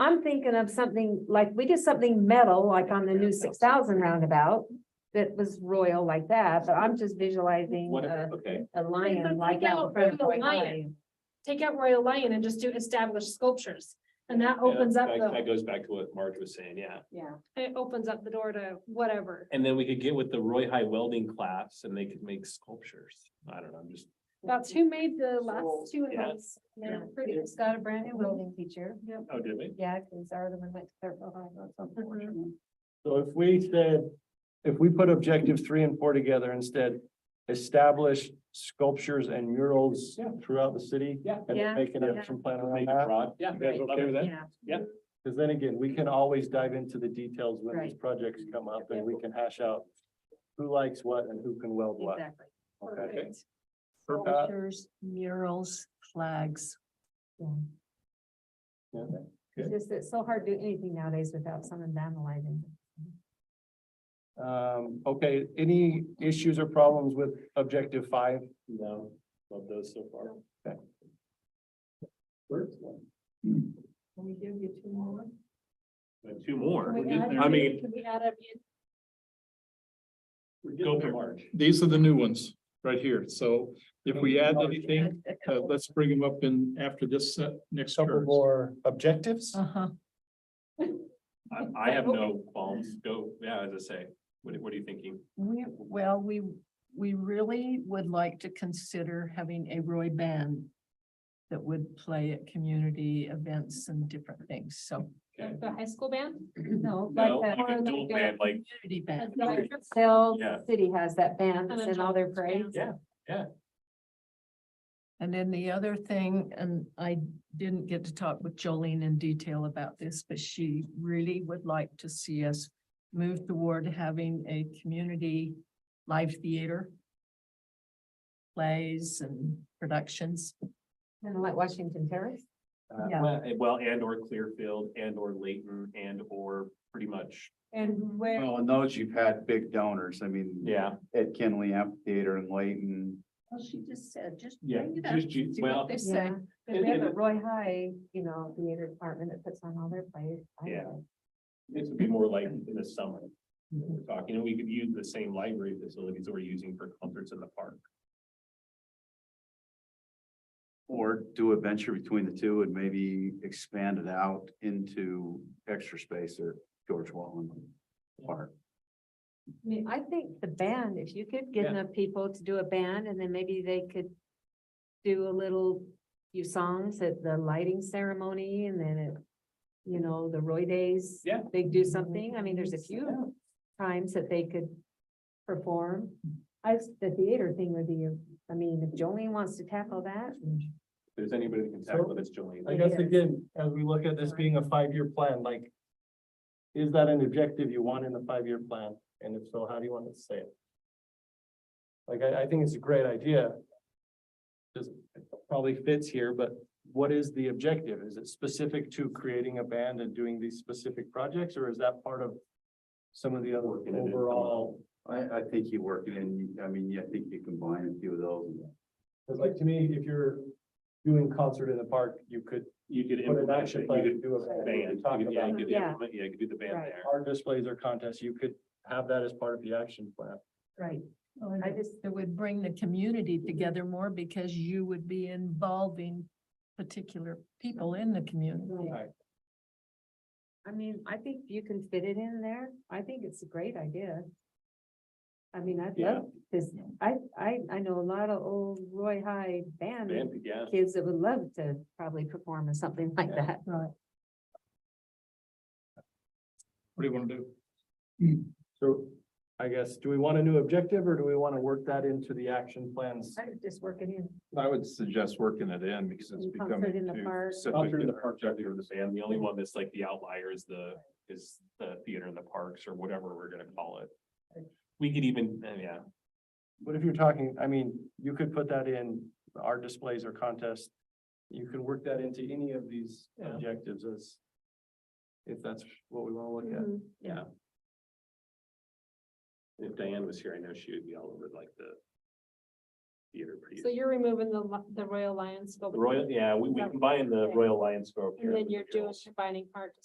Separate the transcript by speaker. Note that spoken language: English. Speaker 1: I'm thinking of something like, we did something metal, like on the new six thousand roundabout. That was royal like that, but I'm just visualizing
Speaker 2: What,
Speaker 1: a,
Speaker 2: if- okay,
Speaker 1: a lion
Speaker 3: could
Speaker 1: like
Speaker 3: take
Speaker 1: out in
Speaker 3: out
Speaker 1: front of
Speaker 3: Royal
Speaker 1: Royal
Speaker 3: Lion.
Speaker 1: Lion.
Speaker 3: take out Royal Lion and just do established sculptures. And that
Speaker 2: yeah,
Speaker 3: opens up
Speaker 2: that,
Speaker 3: the,
Speaker 2: that goes back to what Marge was saying, yeah.
Speaker 1: Yeah.
Speaker 3: it opens up the door to whatever.
Speaker 2: And then we could get with the Roy High welding class and they could make sculptures. I don't know, I'm just,
Speaker 3: That's who made the last two of
Speaker 2: Yeah.
Speaker 3: those. They're
Speaker 2: Yeah.
Speaker 3: pretty.
Speaker 1: It's got a brand new welding teacher. Yep.
Speaker 2: oh, did we?
Speaker 1: Yeah, cause our other one went to Clearfield High, that's
Speaker 2: Mm-hmm.
Speaker 1: unfortunate.
Speaker 4: So if we said, if we put objective three and four together instead, establish sculptures and murals
Speaker 2: Yeah.
Speaker 4: throughout the city.
Speaker 2: Yeah.
Speaker 4: And
Speaker 1: Yeah,
Speaker 4: make an
Speaker 1: yeah.
Speaker 4: action plan around
Speaker 2: Make it
Speaker 4: that.
Speaker 2: broad, yeah.
Speaker 4: You guys okay with that?
Speaker 1: Yeah,
Speaker 4: Because then again, we can always dive into the details when these
Speaker 1: Right.
Speaker 4: projects come up and we can hash out who likes what and who can weld what.
Speaker 1: exactly.
Speaker 4: Okay.
Speaker 3: Perfect.
Speaker 4: Uh,
Speaker 5: Sculptures, murals, flags.
Speaker 1: It's just, it's so hard to do anything nowadays without someone vandalizing.
Speaker 4: Um, okay, any issues or problems with objective five?
Speaker 2: No, love those so far.
Speaker 4: First one.
Speaker 5: Can we give you two more?
Speaker 2: But Two more.
Speaker 3: Can
Speaker 2: We're
Speaker 3: we
Speaker 2: getting
Speaker 3: add
Speaker 2: there.
Speaker 3: a-
Speaker 2: I mean,
Speaker 3: Can we add a,
Speaker 2: we're getting
Speaker 6: Go
Speaker 2: there,
Speaker 6: for it.
Speaker 2: Marge.
Speaker 6: These are the new ones right here. So if we add anything, uh, let's bring them up in after this uh, next
Speaker 4: Couple
Speaker 6: term.
Speaker 4: more objectives?
Speaker 5: Uh-huh.
Speaker 2: I, I have no qualms. Go, yeah, as I say, what, what are you thinking?
Speaker 5: We, well, we, we really would like to consider having a Roy band that would play at community events and different things, so.
Speaker 2: Okay.
Speaker 3: like the high school band?
Speaker 1: No, like
Speaker 2: No,
Speaker 1: that.
Speaker 2: like a dual band, like,
Speaker 5: Community band.
Speaker 1: Sell
Speaker 2: Yeah.
Speaker 1: City has that band
Speaker 3: And
Speaker 1: that's
Speaker 3: then
Speaker 1: in all their
Speaker 3: John's
Speaker 1: parades.
Speaker 3: Band.
Speaker 2: Yeah.
Speaker 5: And then the other thing, and I didn't get to talk with Jolene in detail about this, but she really would like to see us move toward having a community live theater. Plays and productions.
Speaker 1: Kind of like Washington Terrace.
Speaker 2: uh,
Speaker 5: Yeah.
Speaker 2: well, eh, well, and or Clearfield and or Layton and or pretty much,
Speaker 1: And where,
Speaker 7: Well, and those you've had big donors. I mean.
Speaker 2: yeah.
Speaker 7: Ed Kinley Amphitheater and Layton.
Speaker 5: Well, she just said, just
Speaker 2: Yeah,
Speaker 5: bring it up,
Speaker 2: just you-
Speaker 5: see
Speaker 2: well-
Speaker 5: what they
Speaker 1: yeah,
Speaker 5: say.
Speaker 1: but
Speaker 2: And-
Speaker 1: we have
Speaker 2: and-
Speaker 1: a Roy High, you know, theater department that puts on all their plays. I
Speaker 2: Yeah.
Speaker 1: know.
Speaker 2: This would be more like in the summer. that We're talking, and we could use the same library facilities that we're using for concerts in the park.
Speaker 7: Or do a venture between the two and maybe expand it out into extra space at George Wallen Park.
Speaker 1: I mean, I think the band, if you could get
Speaker 2: Yeah.
Speaker 1: enough people to do a band and then maybe they could do a little few songs at the lighting ceremony and then it, you know, the Roy Days.
Speaker 2: Yeah.
Speaker 1: They do something. I mean, there's a few times that they could perform. I, the theater thing would be, I mean, if Jolene wants to tackle that.
Speaker 2: If there's anybody that can tackle this, Jolene.
Speaker 4: I guess again, as we look at this being a five-year plan, like. Is that an objective you want in the five-year plan? And if so, how do you want to say it? Like, I, I think it's a great idea. Just it probably fits here, but what is the objective? Is it specific to creating a band and doing these specific projects, or is that part of? Some of the other
Speaker 2: Working it in.
Speaker 4: overall,
Speaker 7: I, I think you work it in, I mean, I think you combine a few of those.
Speaker 4: because like to me, if you're doing concert in the park, you could
Speaker 2: You could
Speaker 4: put an
Speaker 2: implement, it,
Speaker 4: action
Speaker 2: you
Speaker 4: plan to
Speaker 2: could
Speaker 4: do a band.
Speaker 2: band,
Speaker 4: we
Speaker 2: you
Speaker 4: talked
Speaker 2: could- yeah, you
Speaker 4: about.
Speaker 2: could
Speaker 1: Yeah.
Speaker 2: implement- yeah, you could do the band
Speaker 1: Right.
Speaker 2: there.
Speaker 4: art displays or contests, you could have that as part of the action plan.
Speaker 1: Right.
Speaker 5: Well, and
Speaker 1: I just,
Speaker 5: It would bring the community together more because you would be involving particular people in the community.
Speaker 4: Right.
Speaker 1: I mean, I think you can fit it in there. I think it's a great idea. I mean, I'd
Speaker 2: Yeah.
Speaker 1: love this. I, I, I know a lot of old Roy High band
Speaker 2: Band, yeah.
Speaker 1: kids that would love to probably perform or something like
Speaker 2: Yeah.
Speaker 1: that.
Speaker 5: Right.
Speaker 6: What do you want to do?
Speaker 4: So I guess, do we want a new objective or do we want to work that into the action plans?
Speaker 1: I would just work it in.
Speaker 6: I would suggest working it in because
Speaker 1: it's And concert becoming in the too park.
Speaker 2: Concert in the park, or the band, the only one that's like the outlier is the, is the theater in the parks or whatever we're gonna call it. We could even, uh, yeah,
Speaker 4: But if you're talking, I mean, you could put that in art displays or contests. You can work that into any of these
Speaker 2: Yeah.
Speaker 4: objectives as if that's what we want to look at.
Speaker 3: Mm-hmm.
Speaker 2: if Diane was here, I know she would be all over like the theater. pretty-
Speaker 3: So you're removing the, li- the Royal Lion sculpture.
Speaker 2: Royal, yeah, we, we combine the Royal Lion score.
Speaker 3: And then you're doing combining art